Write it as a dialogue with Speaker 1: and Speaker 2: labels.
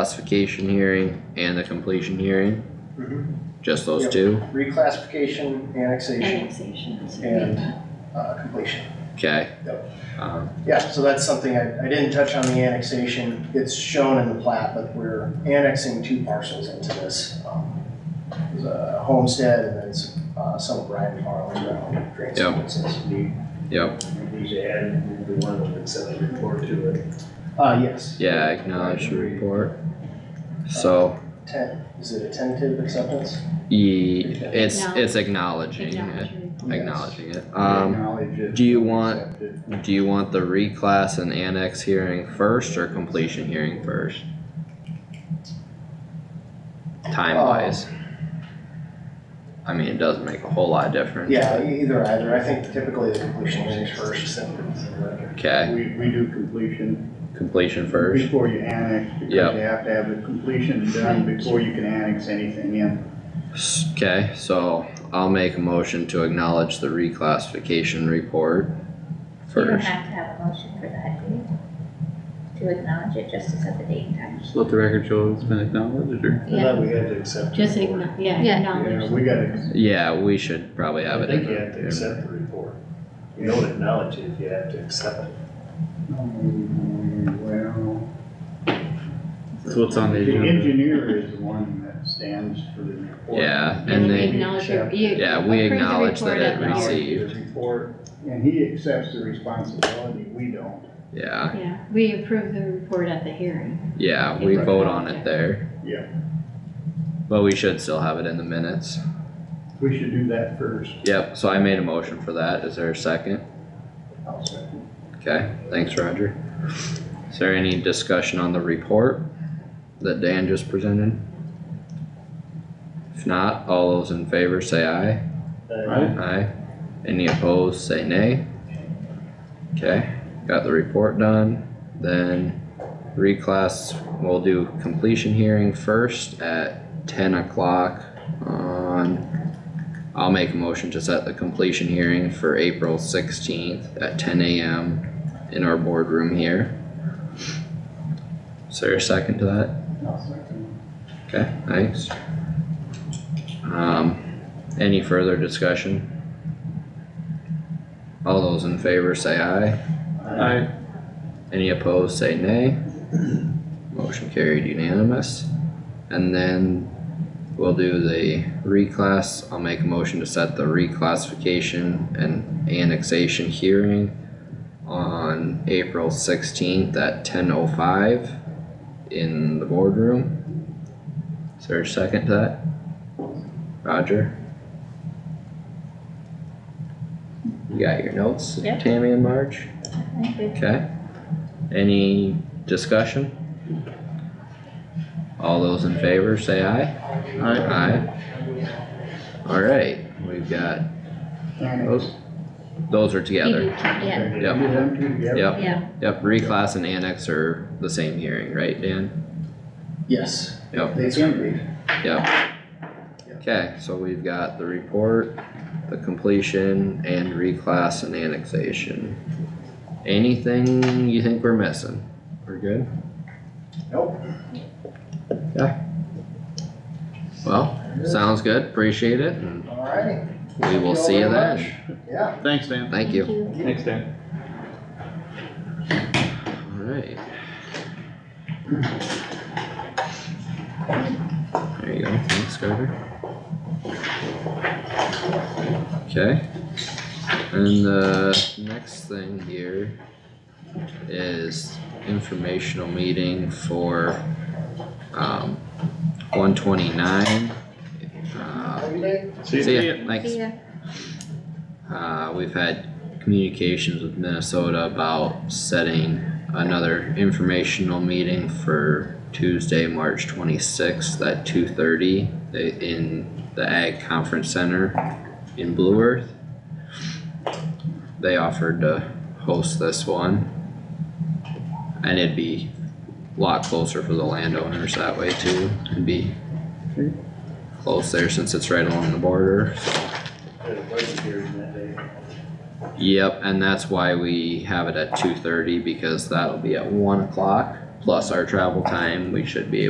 Speaker 1: reclassification hearing and the completion hearing,
Speaker 2: Mhm.
Speaker 1: just those
Speaker 2: Yep.
Speaker 1: two?
Speaker 2: Reclassification, annexation,
Speaker 3: annexation, so we have
Speaker 2: And-
Speaker 3: that.
Speaker 2: uh, completion.
Speaker 1: Okay.
Speaker 2: Yep.
Speaker 1: Um,
Speaker 2: Yeah, so that's something I, I didn't touch on the annexation. It's shown in the plat, but we're annexing two parcels into this. um, There's a homestead and then some, uh, some of Ryan Farley ground. drains
Speaker 1: Yep.
Speaker 2: and stuff.
Speaker 1: yep,
Speaker 4: We need to add the one that would send a report to it.
Speaker 2: Uh, yes.
Speaker 1: yeah, acknowledge the report. So,
Speaker 2: Ten, is it a tentative acceptance?
Speaker 1: ye, it's,
Speaker 3: No.
Speaker 1: it's acknowledging it,
Speaker 3: Acknowledge.
Speaker 1: acknowledging it. Um,
Speaker 5: Acknowledge it,
Speaker 1: do you want-
Speaker 5: accept it.
Speaker 1: do you want the reclass and annex hearing first or completion hearing first? Time wise.
Speaker 2: Um,
Speaker 1: I mean, it doesn't make a whole lot of difference.
Speaker 2: Yeah, e- either, either. I think typically the completion is first. then-
Speaker 1: Okay,
Speaker 5: We, we do completion
Speaker 1: completion first,
Speaker 5: before you annex, because you
Speaker 1: Yep.
Speaker 5: have to have the completion done before you can annex anything in.
Speaker 1: S- okay, so I'll make a motion to acknowledge the reclassification report
Speaker 6: You don't
Speaker 1: first.
Speaker 6: have to have a motion for that, do you? To acknowledge it, just to set the date and time.
Speaker 7: Just let the record show it's been acknowledged or?
Speaker 4: I thought we had to accept. the
Speaker 3: Just
Speaker 4: report.
Speaker 3: igno- yeah,
Speaker 6: Yeah.
Speaker 5: Yeah,
Speaker 3: acknowledge.
Speaker 5: we gotta,
Speaker 1: Yeah, we should probably have
Speaker 4: I
Speaker 1: it
Speaker 4: think you have to
Speaker 1: in.
Speaker 4: accept the report. You don't acknowledge it, you have to accept it.
Speaker 5: um, well,
Speaker 7: That's what's on the
Speaker 5: the
Speaker 7: agenda.
Speaker 5: engineer is the one that stands for the report.
Speaker 1: Yeah,
Speaker 3: And
Speaker 1: and
Speaker 3: we
Speaker 1: they,
Speaker 3: acknowledge, it. you.
Speaker 1: yeah, we
Speaker 3: approve the
Speaker 1: acknowledge that
Speaker 3: report
Speaker 1: it
Speaker 3: at the-
Speaker 1: received-
Speaker 5: The report, and he accepts the responsibility, we don't.
Speaker 1: yeah,
Speaker 3: Yeah, we approve the report at the hearing.
Speaker 1: yeah, we vote on it there.
Speaker 5: Yeah.
Speaker 1: But we should still have it in the minutes.
Speaker 5: We should do that first.
Speaker 1: Yep, so I made a motion for that. Is there a second?
Speaker 2: I'll second.
Speaker 1: Okay, thanks Roger. Is there any discussion on the report that Dan just presented? If not, all those in favor say aye.
Speaker 4: Right.
Speaker 1: Aye. Any opposed, say nay. Okay, got the report done, then reclass, we'll do completion hearing first at ten o'clock on. I'll make a motion to set the completion hearing for April sixteenth at ten AM in our boardroom here. Is there a second to that? Okay, thanks. Um, any further discussion? All those in favor say aye,
Speaker 7: Aye.
Speaker 1: any opposed say nay. Motion carried unanimous. And then we'll do the reclass, I'll make a motion to set the reclassification and annexation hearing on April sixteenth at ten oh five in the boardroom. Is there a second to that? Roger? You got your notes,
Speaker 6: Yeah.
Speaker 1: Tammy and Marge?
Speaker 6: I think
Speaker 1: Okay. Any discussion? All those in favor, say aye. Aye. Alright, we've got,
Speaker 5: Annex.
Speaker 1: those, those are together.
Speaker 6: we- Yeah,
Speaker 5: Okay,
Speaker 1: Yep.
Speaker 5: Do them two together.
Speaker 1: Yep,
Speaker 6: yeah,
Speaker 1: yep, reclass and annex are the same hearing, right, Dan?
Speaker 2: Yes.
Speaker 1: Yep.
Speaker 2: They can be.
Speaker 1: Yep. Okay, so we've got the report, the completion, and reclass and annexation. Anything you think we're missing? We're good?
Speaker 2: Nope.
Speaker 1: Well, sounds good, appreciate it, and
Speaker 2: Alrighty.
Speaker 1: we will see you then.
Speaker 2: Yeah.
Speaker 7: Thanks, Dan.
Speaker 1: Thank you.
Speaker 7: Thanks, Dan.
Speaker 1: Alright. There you go, thanks Carter. Okay, and the next thing here is informational meeting for, um, one twenty-nine. Uh,
Speaker 2: Have a good day.
Speaker 1: See ya, thanks.
Speaker 6: see ya.
Speaker 1: Uh, we've had communications with Minnesota about setting another informational meeting for Tuesday, March twenty-sixth at two thirty in the Ag Conference Center in Blue Earth. They offered to host this one. And it'd be a lot closer for the landowners that way too. It'd be close there since it's right along the border,
Speaker 4: Had a budget hearing that day.
Speaker 1: Yep, and that's why we have it at two thirty, because that'll be at one o'clock. plus our travel time, we should be able